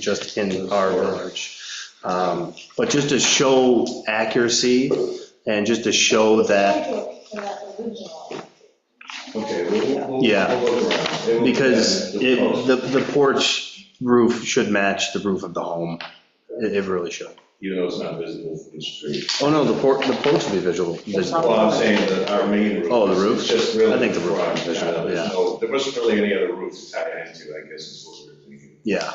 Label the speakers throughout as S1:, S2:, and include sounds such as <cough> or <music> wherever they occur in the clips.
S1: just in our village. Um, But just to show accuracy and just to show that,
S2: Okay, we'll- we'll.
S1: Yeah.
S2: we'll look around. They will-
S1: because
S2: they'll
S1: it,
S2: post.
S1: the, the porch roof should match the roof of the home. It, it really should.
S2: Even though it's not visible from the street.
S1: Oh, no, the porch, the porch will be visual,
S2: Well,
S1: visible.
S2: I'm saying that our main roof.
S1: Oh, the roof?
S2: It's just really.
S1: I think the roof
S2: front,
S1: is visible,
S2: uh, there's
S1: yeah.
S2: no- There wasn't really any other roof to tie it into, I guess is what we we're thinking.
S1: Yeah.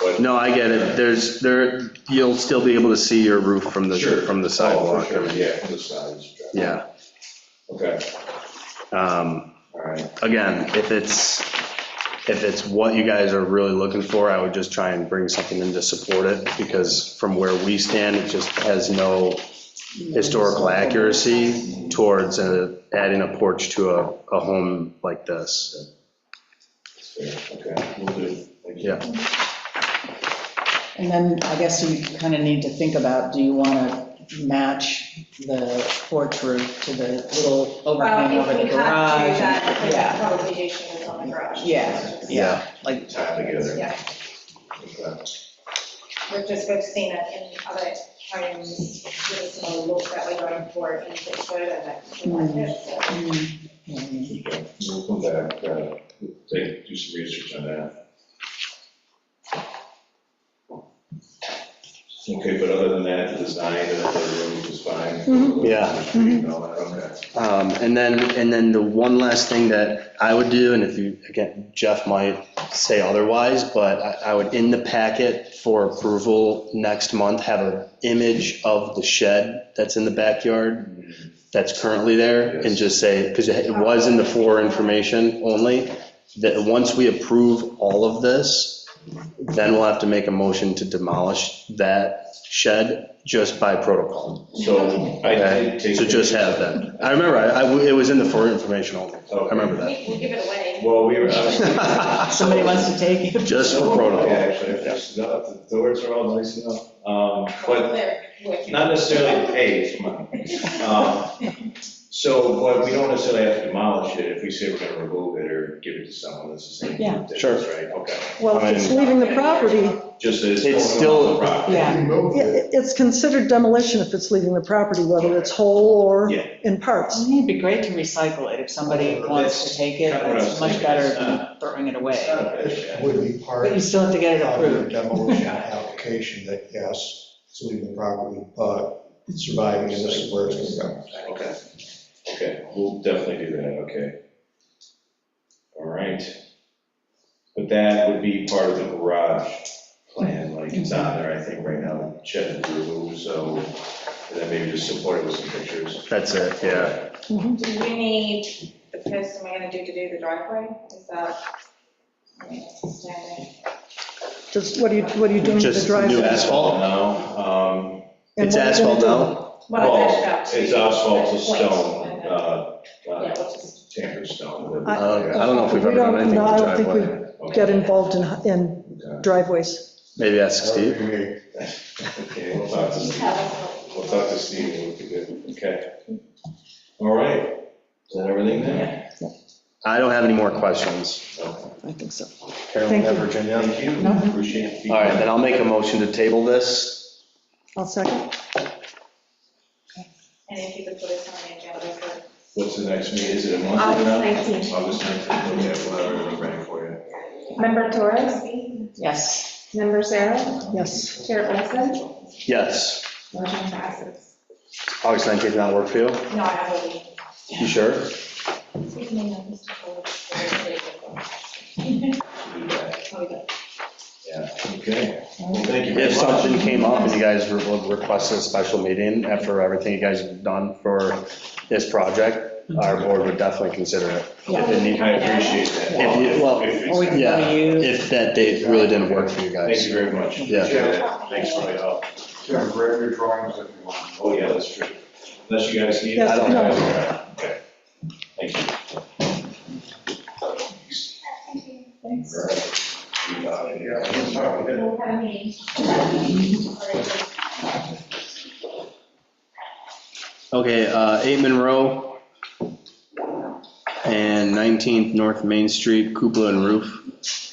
S2: But
S1: No, I get it. There's, there, you'll still be able to see your roof from the,
S2: Sure.
S1: from the
S2: Oh,
S1: sidewalk.
S2: for sure, yeah, from the sides.
S1: Yeah.
S2: Okay,
S1: Um,
S2: all right.
S1: again, if it's, if it's what you guys are really looking for, I would just try and bring something in to support it, because from where we stand, it just has no historical accuracy towards uh, adding a porch to a, a home like this.
S2: that's fair. Okay, we'll do. Thank you.
S1: Yeah.
S3: And then I guess you kind of need to think about, do you want to match the porch roof to the little overhang
S4: Well,
S3: over
S4: if
S3: the
S4: we have to,
S3: garage?
S4: then
S3: Yeah,
S4: the probably addition is on the garage.
S3: Yeah, yeah, like,
S2: Tie it together.
S4: Yeah,
S2: Okay.
S4: we're just, we've seen it in other items, with a similar look that we're going for in Pittsburgh and that, like this, so.
S3: mm, mm,
S2: Okay, We'll come back, uh, take, do some research on that. Okay, but other than that, the design of the room is fine?
S1: Mm-hmm. Yeah.
S2: And all that, okay.
S1: Um, And then, and then the one last thing that I would do, and if you, again, Jeff might say otherwise, but I I would, in the packet for approval next month, have an image of the shed that's in the backyard that's currently there, and just say, because it was in the for information only, that once we approve all of this, then we'll have to make a motion to demolish that shed just by protocol.
S2: So I
S1: Okay,
S2: did take.
S1: so just have that. I remember, I, I- it was in the for information only. I remember that.
S4: We- We'll give it away.
S2: Oh. Well, we were. I
S1: <laughs>
S3: Somebody wants to take it?
S1: Just for
S2: Yeah,
S1: protocol.
S2: Actually, I fixed it up, the doors are all nice enough, um, but
S4: They're working.
S2: Not necessarily, hey, come on. Um, So, but we don't necessarily have to demolish it if we say we're gonna remove it or give it to someone, that's the same.
S3: Yeah.
S2: difference,
S1: Sure.
S2: Right, okay.
S5: Well,
S1: I
S5: if it's
S1: mean-
S5: leaving the property, yeah,
S2: Just that
S1: It's
S2: it's
S1: still-
S2: still on the property.
S3: Yeah.
S5: it- it's considered demolition if it's leaving the property, whether it's whole or
S2: Yeah.
S5: in parts.
S3: It'd be great to recycle it if somebody wants to take it, but it's much better
S1: Uh,
S3: than throwing it
S2: It's
S3: away.
S2: not a bad idea.
S6: would be part
S3: But you
S6: of
S3: still have to get it
S6: your
S3: approved.
S6: demolition application that, yes, it's leaving the property, but it's surviving and this is where it's going to go.
S2: Okay, okay, we'll definitely do that, okay. All right. But that would be part of the garage plan, like it's on there, I think, right now, the shed is removed, so and then maybe just support it with some pictures.
S1: That's it, yeah.
S4: Do we need the person we're gonna do to do the driveway? Is that? I mean, it's standard.
S5: Just, what are you, what are you doing with the
S1: Just new
S5: driveway?
S1: asphalt.
S2: No, um,
S5: And
S1: It's
S5: what are you gonna
S1: asphalt
S5: do?
S1: now.
S4: Well, I measured
S2: well,
S4: out to-
S2: it's uh, asphalt to
S4: Point.
S2: stone, uh,
S4: Yeah,
S2: uh,
S4: we'll just-
S2: tanker stone.
S1: I don't I don't know if we've
S5: We
S1: ever done
S5: don't-
S1: anything
S5: no, I
S1: with the
S5: don't think we-
S1: driveway.
S5: Get involved in, in driveways.
S1: Maybe ask Steve.
S6: Steve?
S2: Okay, we'll talk to
S4: You
S2: Steve.
S4: have us.
S2: We'll talk to Steve, and we'll be good, okay? All right, is that everything then?
S1: I don't have any more questions.
S2: Okay.
S5: I think so.
S1: Carolyn,
S5: Thank you.
S1: Virginia.
S2: Thank you, appreciate it.
S1: All right, then I'll make a motion to table this.
S5: I'll second.
S4: And if you could put us on the agenda for
S2: What's the next meeting, is it a month from now? August 19th, okay, we'll have everything ready for you.
S7: Member Torres,
S3: Yes.
S7: Member Sarah,
S5: Yes,
S7: Chair Olson,
S1: Yes.
S7: motion passes.
S1: August 19th, not work for you?
S4: No, I have a meeting.
S1: You sure?
S4: Excuse me, no, Mr. Ford.
S2: Do that.
S4: Oh, we got-
S2: Yeah, okay, well, thank you very
S1: If
S2: much.
S1: something came up and you guys re- would request a special meeting after everything you guys have done for this project, our board would definitely consider it. If it need-
S2: I appreciate that.
S1: If you- well,
S3: Or we
S2: If
S3: can
S2: it's-
S1: Yeah.
S3: go to you.
S1: If that date really didn't work for you
S2: Thank
S1: guys.
S2: you very much.
S1: Yeah.
S2: Appreciate it. Thanks for your help.
S6: Yeah, grab your drawings if you want.
S2: Oh, yeah, that's true. Unless you guys need. it.
S5: Yes, I don't no.
S2: Okay, okay. Thank you. Thanks.
S4: We'll have a meeting. Or just-
S1: Okay, uh, 8 Monroe and 19th North Main Street, cupola and roof.